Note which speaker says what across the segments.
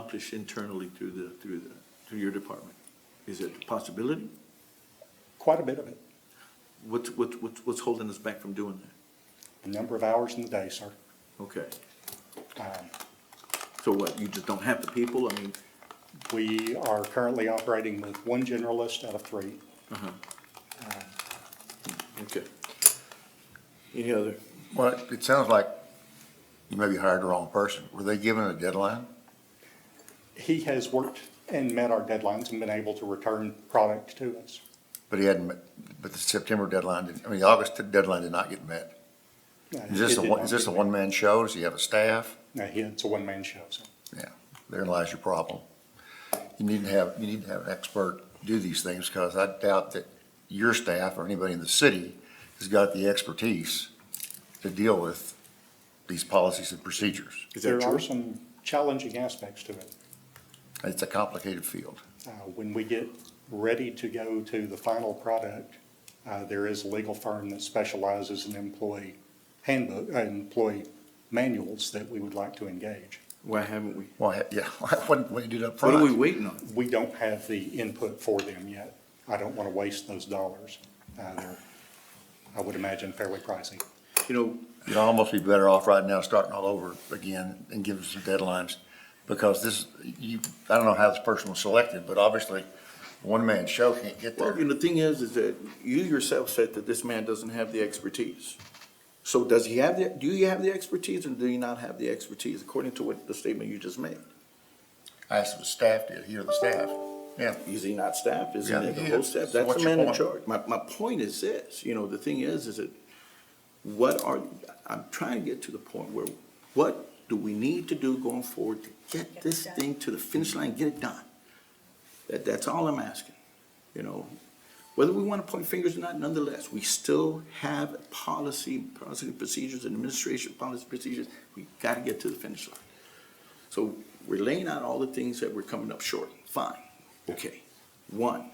Speaker 1: accomplish internally through the, through the, through your department? Is it a possibility?
Speaker 2: Quite a bit of it,
Speaker 1: What's, what's, what's- what's holding us back from doing that?
Speaker 2: a number of hours in the day, sir.
Speaker 1: Okay,
Speaker 2: Um,
Speaker 1: so what, you just don't have the people? I mean,
Speaker 2: We are currently operating with one generalist out of three.
Speaker 1: okay. Any other?
Speaker 3: Well, it- it sounds like you maybe hired the wrong person. Were they given a deadline?
Speaker 2: He has worked and met our deadlines and been able to return product to us.
Speaker 3: But he hadn't, met- but the September deadline, didn't- I mean, the August deadline did not get met.
Speaker 2: Uh,
Speaker 3: Is this
Speaker 2: it
Speaker 3: a,
Speaker 2: did
Speaker 3: one-
Speaker 2: not
Speaker 3: is this a
Speaker 2: get-
Speaker 3: one-man show? Does he have a staff?
Speaker 2: No, he- it's a one-man show, sir.
Speaker 3: Yeah, therein lies your problem. You need to have, you need to have an expert do these things, because I doubt that your staff or anybody in the city has got the expertise to deal with these policies and procedures.
Speaker 1: Is that
Speaker 2: There
Speaker 1: true?
Speaker 2: are some challenging aspects to it.
Speaker 3: It's a complicated field.
Speaker 2: Uh, When we get ready to go to the final product, uh, there is a legal firm that specializes in employee handbook, uh, employee manuals that we would like to engage.
Speaker 1: Why haven't we?
Speaker 3: Why, yeah, why wouldn't we do that
Speaker 1: What are we
Speaker 3: front?
Speaker 1: waiting on?
Speaker 2: We don't have the input for them yet. I don't want to waste those dollars. Uh, They're, I would imagine, fairly pricey.
Speaker 1: You know,
Speaker 3: You'd almost be better off right now starting all over again and giving some deadlines, because this, you, I don't know how this person was selected, but obviously, one-man show can't get
Speaker 1: Well,
Speaker 3: there.
Speaker 1: and the thing is, is that you yourself said that this man doesn't have the expertise. So does he have the, do you have the expertise or do you not have the expertise, according to what the statement you just made?
Speaker 3: I asked the staff, did he or the staff? Yeah.
Speaker 1: Is he not staffed? Is he
Speaker 3: Yeah,
Speaker 1: the
Speaker 3: he
Speaker 1: whole
Speaker 3: is.
Speaker 1: staff?
Speaker 3: So
Speaker 1: That's
Speaker 3: what's
Speaker 1: the
Speaker 3: your
Speaker 1: man in
Speaker 3: point?
Speaker 1: charge. My, my point is this, you know, the thing is, is that what are, I'm trying to get to the point where, what do we need to do going forward to get this thing to the finish line, get it done? That, that's all I'm asking, you know? Whether we want to point fingers or not, nonetheless, we still have policy, policy procedures, and administration policy procedures. We got to get to the finish line. So we're laying out all the things that we're coming up short. Fine, okay. One,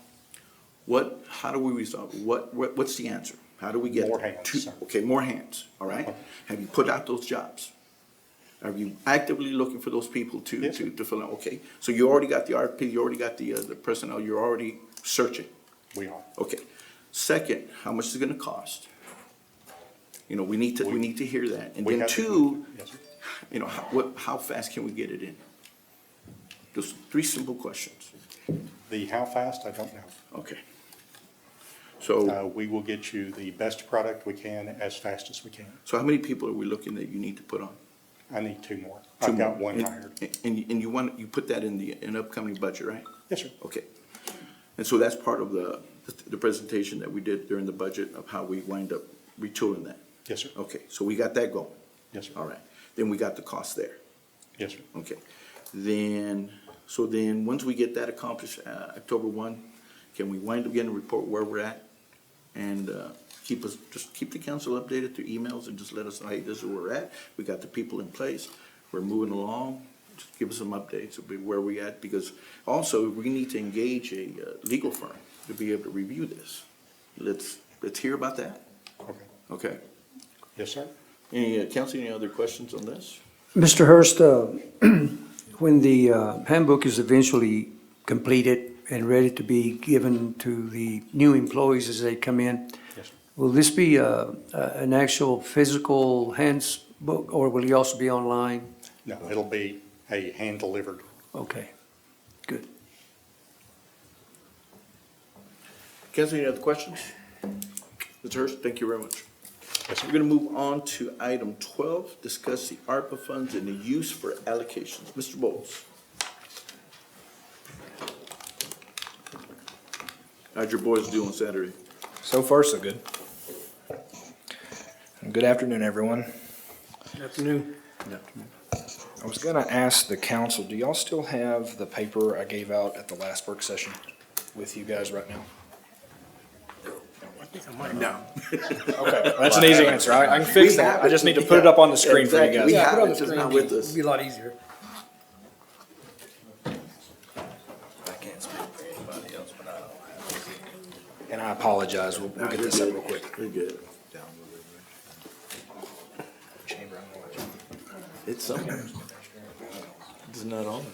Speaker 1: what, how do we resolve, what, what, what's the answer? How do we get?
Speaker 2: More hands,
Speaker 1: to-
Speaker 2: sir.
Speaker 1: Okay, more hands, all right? Have you put out those jobs? Are you actively looking for those people to,
Speaker 2: Yes,
Speaker 1: to,
Speaker 2: sir.
Speaker 1: to fill in? Okay, so you already got the RFP, you already got the, uh, the personnel, you're already searching.
Speaker 2: We are.
Speaker 1: Okay. Second, how much is it gonna cost? You know, we need to, we
Speaker 2: We-
Speaker 1: need to hear that. And
Speaker 2: we
Speaker 1: then
Speaker 2: have the-
Speaker 1: two,
Speaker 2: Yes, sir.
Speaker 1: you know, how, what, how fast can we get it in? Just three simple questions.
Speaker 2: The how fast, I don't know.
Speaker 1: Okay. So,
Speaker 2: Uh, We will get you the best product we can as fast as we can.
Speaker 1: so how many people are we looking that you need to put on?
Speaker 2: I need two more.
Speaker 1: Two
Speaker 2: I've got
Speaker 1: more.
Speaker 2: one
Speaker 1: And-
Speaker 2: hired.
Speaker 1: And, and you want, you put that in the, in upcoming budget, right?
Speaker 2: Yes, sir.
Speaker 1: Okay. And so that's part of the, the presentation that we did during the budget of how we wind up retooling that.
Speaker 2: Yes, sir.
Speaker 1: Okay, so we got that going.
Speaker 2: Yes, sir.
Speaker 1: All right. Then we got the cost there.
Speaker 2: Yes, sir.
Speaker 1: Okay. Then, so then, once we get that accomplished, uh, October one, can we wind up getting a report where we're at? And, uh, keep us, just keep the council updated through emails and just let us know, hey, this is where we're at. We got the people in place. We're moving along. Just give us some updates of where we at, because also, we need to engage a, uh, legal firm to be able to review this. Let's, let's hear about that.
Speaker 2: Okay.
Speaker 1: Okay.
Speaker 2: Yes, sir.
Speaker 1: Any, uh, council, any other questions on this?
Speaker 4: Mr. Hurst, uh, when the uh, handbook is eventually completed and ready to be given to the new employees as they come in,
Speaker 2: Yes, sir.
Speaker 4: will this be uh, a- an actual physical handbook, or will it also be online?
Speaker 2: No, it'll be a hand-delivered.
Speaker 4: Okay, good.
Speaker 1: Council, any other questions? Mr. Hurst, thank you very much.
Speaker 2: Yes,
Speaker 1: We're
Speaker 2: sir.
Speaker 1: gonna move on to item twelve, discuss the ARPA funds and the use for allocations. Mr. Bowles. How'd your boys do on Saturday?
Speaker 5: So far, so good. Good afternoon, everyone. Afternoon. I was gonna ask the council, do y'all still have the paper I gave out at the last work session with you guys right now?
Speaker 1: No.
Speaker 5: Okay, that's an easy answer. I, I can fix that. I just need to put it up on the screen for you
Speaker 1: Exactly. We
Speaker 5: guys.
Speaker 1: have it, it's just not with us.
Speaker 6: Be a lot easier.
Speaker 5: And I apologize. We'll, we'll get this up real quick.
Speaker 1: We're good.
Speaker 5: Chamber, I'm gonna let you-
Speaker 1: It's something. It's not on.